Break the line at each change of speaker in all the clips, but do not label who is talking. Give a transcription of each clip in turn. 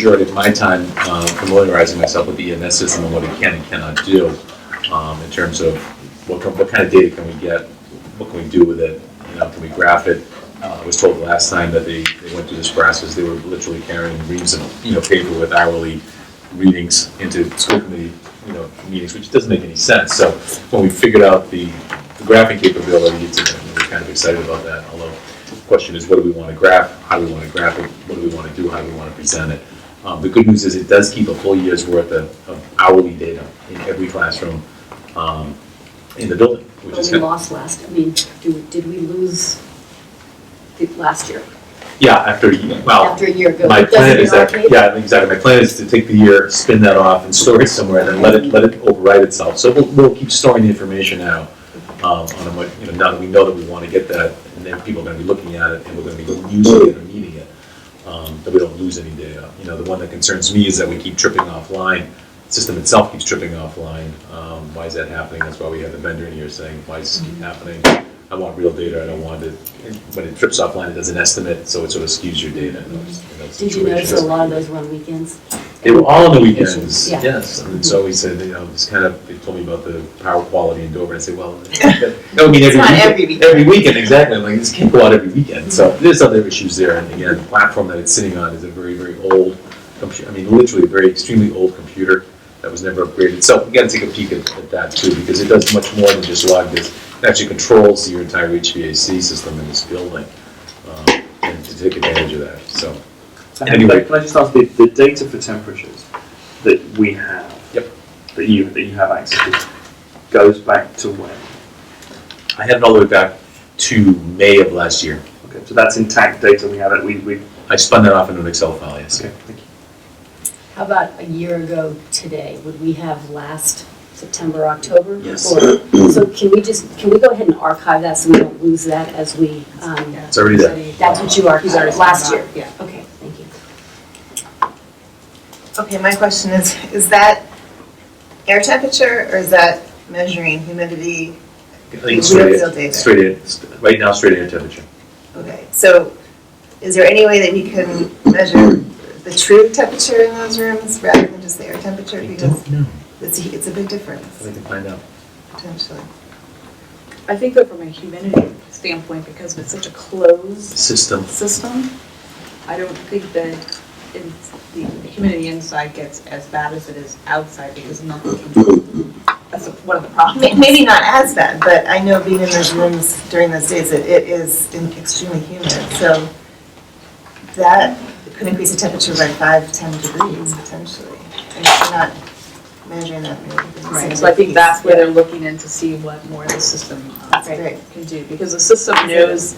majority of my time uh, familiarizing myself with the EMS system and what it can and cannot do um, in terms of what, co- what kind of data can we get, what can we do with it, you know, can we graph it? Uh, I was told last time that they, they went through this process, they were literally carrying reams of, you know, paper with hourly readings into school committee, you know, meetings, which doesn't make any sense. So when we figured out the the graphing capability, it's, we we're kind of excited about that, although the question is, what do we want to graph? How do we want to graph it? What do we want to do? How do we want to present it? Um, The good news is it does keep a full year's worth of of hourly data in every classroom um, in the building, which
Well,
is
we
good.
lost last, I mean, do, did we lose the last year?
Yeah, after, a year- well,
After a year ago?
my
Doesn't
plan
it
is that,
arcade?
yeah, exactly. My plan is to take the year, spin that off and store it somewhere and then let it, let it override itself. So we'll, we'll keep storing the information now. um, on a, much- you know, now that we know that we want to get that, and then people are going to be looking at it, and we're going to be using it or needing it, um, that we don't lose any data. You know, the one that concerns me is that we keep tripping offline, the system itself keeps tripping offline. Um, Why is that happening? That's why we have the vendor in here saying, why is this
Mm-hmm.
keep happening? I want real data, I don't want it, when it trips offline, it does an estimate, so it sort of skews your data in those in those
Did you notice a
situations.
lot of those were on weekends?
They were all on the weekends,
Yeah.
yes. And so we said, you know, it's kind of, they told me about the power quality in Dover, and I said, well, that that would mean every
It's not every
weekend.
weekend.
Every weekend, exactly, I'm like, this can't go out every weekend. So there's other issues there, and again, the platform that it's sitting on is a very, very old computer, I mean, literally a very extremely old computer that was never upgraded. So we gotta take a peek at, at that too, because it does much more than just log this. It actually controls your entire HVAC system in this building, um, and to take advantage of that, so.
So
Anyway.
anyway, can I just ask the, the data for temperatures that we have?
Yep.
That you that you have access to goes back to when?
I had it all the way back to May of last year.
Okay, so that's intact data we have. It we we.
I spun that off into an Excel file, yes.
Okay, thank you.
How about a year ago today? Would we have last September, October?
Yes.
Or- So can we just, can we go ahead and archive that so we don't lose that as we, um,
It's already there.
that's what you
He's already
archived last
said
year?
that.
Yeah. Okay, thank you.
Okay, my question is, is that air temperature or is that measuring humidity?
I think it's straight
Real
in,
data.
straight in, st- right now, straight in temperature.
Okay, so is there any way that we can measure the true temperature in those rooms rather than just the air temperature? Because
know.
it's, a- it's a big difference
I can find out.
potentially.
I think that from a humidity standpoint, because it's such a closed
System.
system, I don't think that it's, the humidity inside gets as bad as it is outside because nothing can. That's one of the
May-
problems.
Maybe not as bad, but I know being in those rooms during those days, it it is extremely humid. So that could increase the temperature by five, 10 degrees potentially. And if you're not measuring that. maybe it's the same
Right, so I think
piece.
that's where they're looking in to see what more the system uh,
That's great.
can do. Because the system knows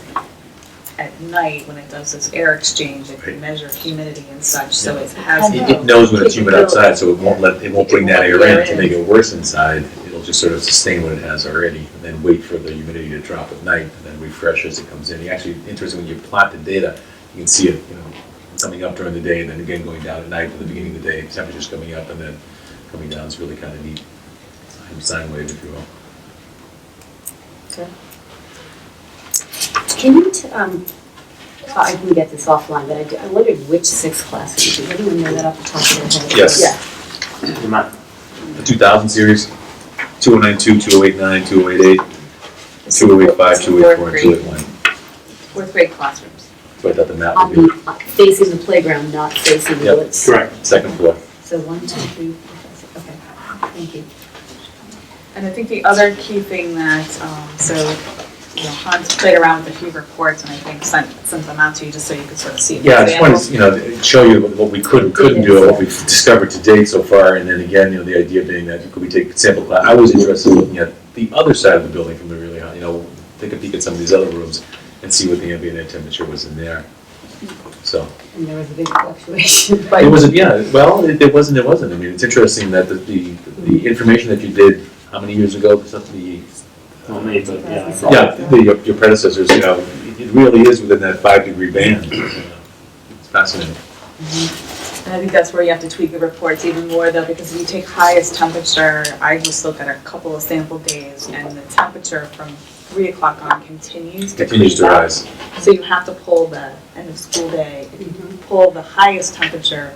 at night when it does its air exchange, it can measure humidity and such, so it has.
It it knows when it's humid outside, so it won't let, it won't bring that air in to make it worse inside. It'll just sort of sustain what it has already, and then wait for the humidity to drop at night, and then refresh as it comes in. You Actually, interesting, when you plot the data, you can see it, you know, coming up during the day, and then again going down at night at the beginning of the day, temperature's coming up and then coming down. It's really kind of neat. Sine- Sine wave, if you will.
Can you, t- um, I can get this offline, but I do- I wondered which six classes, does anyone know that off the top of their head?
Yes.
Yeah.
The map.
The 2000 series, 2092, 2089, 2088, 2085, 2084, and 2081.
Fourth grade classrooms.
So I thought the map
On
would be
the, uh, facing the playground, not facing the
Yep.
woods.
Correct.
second floor.
So one, two, three, four, five, six, okay, thank you.
And I think the other key thing that, um, so, you know, Hans played around with a few reports and I think sent, sent them out to you just so you could sort of see. an
Yeah, I just wanted
example.
to, you know, to show you what we could and couldn't do, what we've discovered to date so far, and then again, you know, the idea being that could we take sample class, I was interested in looking at the other side of the building from the really high, you know, take a peek at some of these other rooms and see what the ambient air temperature was in there. So,
And there was a big fluctuation.
it wasn't, yeah, well, it it wasn't, it wasn't, I mean, it's interesting that the, the the information that you did, how many years ago, something,
Not me, but yeah.
Yeah.
Yeah, the- your your predecessors, you know, it really is within that five-degree band. It's fascinating.
And I think that's where you have to tweak the reports even more though, because if you take highest temperature, I just look at a couple of sample days and the temperature from three o'clock on continues to creep
Continues to
up.
rise.
So you have to pull the end of school day, pull the highest temperature